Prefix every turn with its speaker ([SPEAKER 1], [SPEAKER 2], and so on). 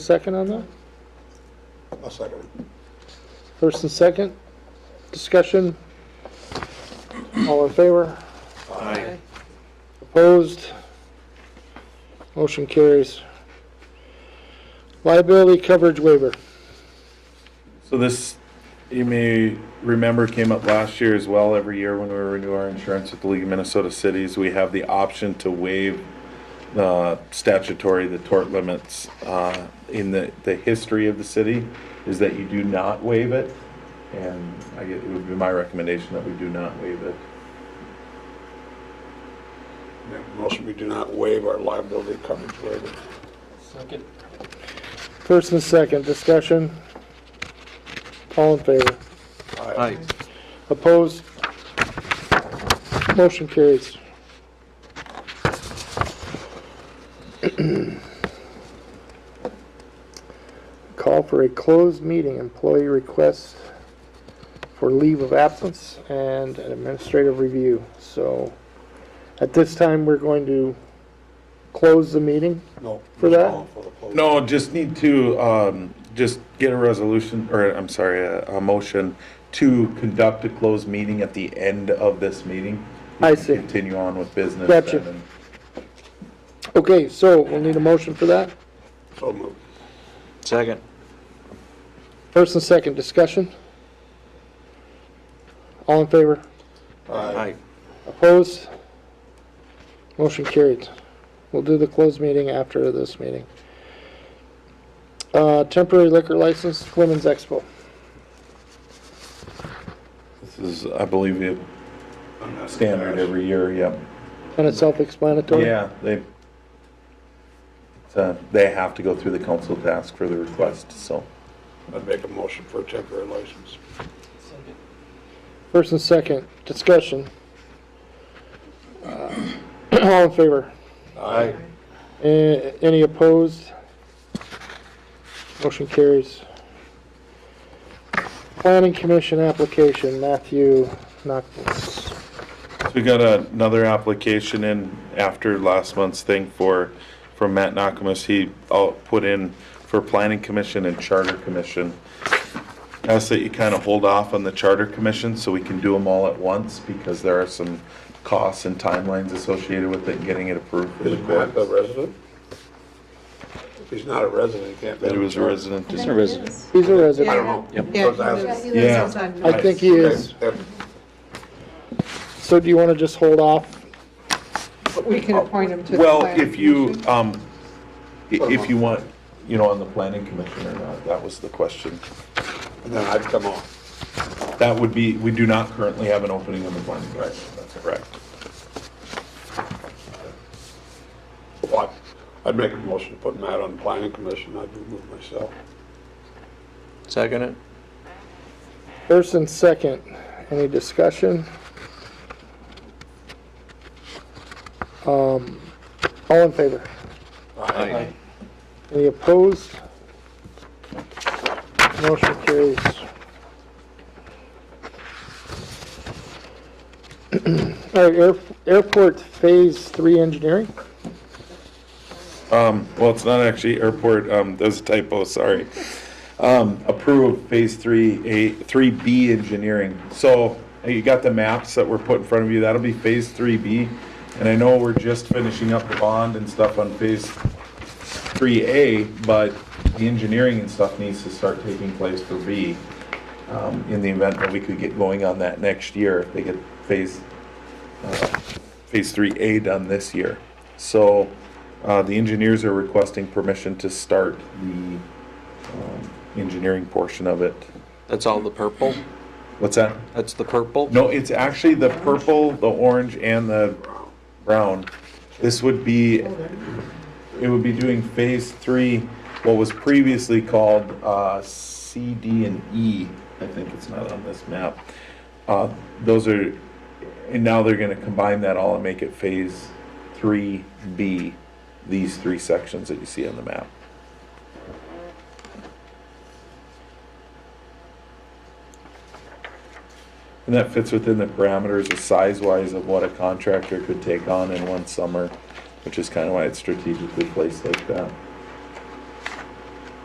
[SPEAKER 1] Second on that?
[SPEAKER 2] I'll second it.
[SPEAKER 1] First and second? Discussion? All in favor?
[SPEAKER 2] Aye.
[SPEAKER 1] Opposed? Motion carries. Liability coverage waiver.
[SPEAKER 3] So this, you may remember, came up last year as well. Every year when we renew our insurance with the League of Minnesota Cities, we have the option to waive the statutory, the tort limits. Uh, In the, the history of the city is that you do not waive it. And I get, it would be my recommendation that we do not waive it.
[SPEAKER 2] Make a Motion, we do not waive our liability coverage waiver.
[SPEAKER 4] Second.
[SPEAKER 1] First and second, discussion? All in favor?
[SPEAKER 2] Aye.
[SPEAKER 1] Opposed? Motion carries. Call for a closed meeting, employee requests for leave of absence and an administrative review. So at this time, we're going to close the meeting.
[SPEAKER 2] No.
[SPEAKER 1] For that?
[SPEAKER 3] No, just need to, um, just get a resolution, or I'm sorry, a, a motion to conduct a closed meeting at the end of this meeting.
[SPEAKER 1] I see.
[SPEAKER 3] Continue on with business.
[SPEAKER 1] Gotcha.
[SPEAKER 3] then and-
[SPEAKER 1] Okay, so we'll need a motion for that.
[SPEAKER 2] So moved.
[SPEAKER 4] Second.
[SPEAKER 1] First and second discussion. All in favor?
[SPEAKER 2] Aye.
[SPEAKER 1] Opposed? Motion carried. We'll do the closed meeting after this meeting. Uh, Temporary liquor license, Women's Expo.
[SPEAKER 3] This is, I believe, a
[SPEAKER 2] I'm not-
[SPEAKER 3] standard every year, yep.
[SPEAKER 1] Kind of self-explanatory.
[SPEAKER 3] Yeah, they, so they have to go through the council to ask for the request, so.
[SPEAKER 2] I'd make a motion for a temporary license.
[SPEAKER 4] Second.
[SPEAKER 1] First and second, discussion. Uh, All in favor?
[SPEAKER 2] Aye.
[SPEAKER 1] A- Any opposed? Motion carries. Planning Commission application, Matthew Knuckles.
[SPEAKER 3] So we got another application in after last month's thing for, from Matt Nakamas. He uh, put in for Planning Commission and Charter Commission. Ask that you kind of hold off on the Charter Commission so we can do them all at once because there are some costs and timelines associated with it, and getting it approved. for the
[SPEAKER 2] Is Matt a
[SPEAKER 3] courts.
[SPEAKER 2] resident? If he's not a resident, he can't be.
[SPEAKER 3] That it was a resident.
[SPEAKER 5] I
[SPEAKER 3] as
[SPEAKER 5] think
[SPEAKER 3] well.
[SPEAKER 5] it is.
[SPEAKER 1] He's a
[SPEAKER 2] I
[SPEAKER 1] resident.
[SPEAKER 2] don't know.
[SPEAKER 5] Yeah,
[SPEAKER 2] Those
[SPEAKER 5] he lives-
[SPEAKER 2] are-
[SPEAKER 5] he
[SPEAKER 3] Yeah.
[SPEAKER 5] lives outside.
[SPEAKER 1] I think he is.
[SPEAKER 2] That-
[SPEAKER 1] So do you want to just hold off?
[SPEAKER 5] We can appoint him to the
[SPEAKER 3] Well,
[SPEAKER 5] planning
[SPEAKER 3] if you,
[SPEAKER 5] commission.
[SPEAKER 3] um, i- if you want, you know, on the Planning Commission or not, that was the question.
[SPEAKER 2] And then I'd come on.
[SPEAKER 3] That would be, we do not currently have an opening on the planning commission. That's correct.
[SPEAKER 2] What? I'd make a motion to put Matt on the planning commission. I'd remove myself.
[SPEAKER 4] Second it.
[SPEAKER 1] First and second, any discussion? Um, All in favor?
[SPEAKER 4] Aye.
[SPEAKER 1] Any opposed? Motion carries. All right, air- airport phase three engineering?
[SPEAKER 3] Um, well, it's not actually airport, um, that was a typo, sorry. Um, approve phase three, A, three B engineering. So you got the maps that were put in front of you. That'll be phase three B. And I know we're just finishing up the bond and stuff on phase three A, but the engineering and stuff needs to start taking place for B. Um, in the event that we could get going on that next year, if they get phase, uh, phase three A done this year. So, uh, the engineers are requesting permission to start the, um, engineering portion of it.
[SPEAKER 4] That's all the purple?
[SPEAKER 3] What's that?
[SPEAKER 4] That's the purple?
[SPEAKER 3] No, it's actually the purple, the orange, and the brown. This would be, it would be doing phase three, what was previously called uh, C, D, and E. I think it's not on this map. Uh, Those are, and now they're gonna combine that all and make it phase three B, these three sections that you see on the map. And that fits within the parameters of size-wise of what a contractor could take on in one summer, which is kind of why it's strategically placed like that.